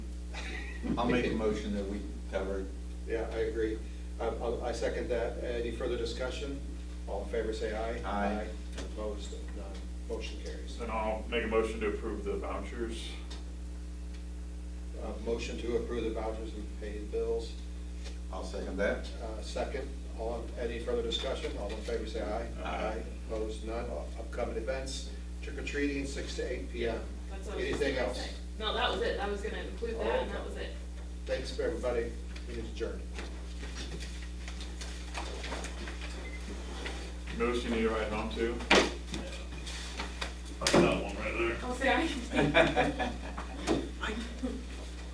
I'll make a motion that we cover. Yeah, I agree. Um, I'll- I second that. Any further discussion? All in favor, say aye. Aye. Opposed, none. Motion carries. Then I'll make a motion to approve the vouchers. Uh, Motion to approve the vouchers and pay the bills. I'll second that. Uh, Second, all, in- any further discussion? All in favor, say aye. Aye. Opposed, none. Uh, Upcoming events, trick or treating, six to eight P M. That's what I was just Anything gonna else? say. No, that was it, I was gonna include that, and that was it. Thanks for everybody. We need to adjourn. Notice you need to write home to. I got one right there. I'll say I.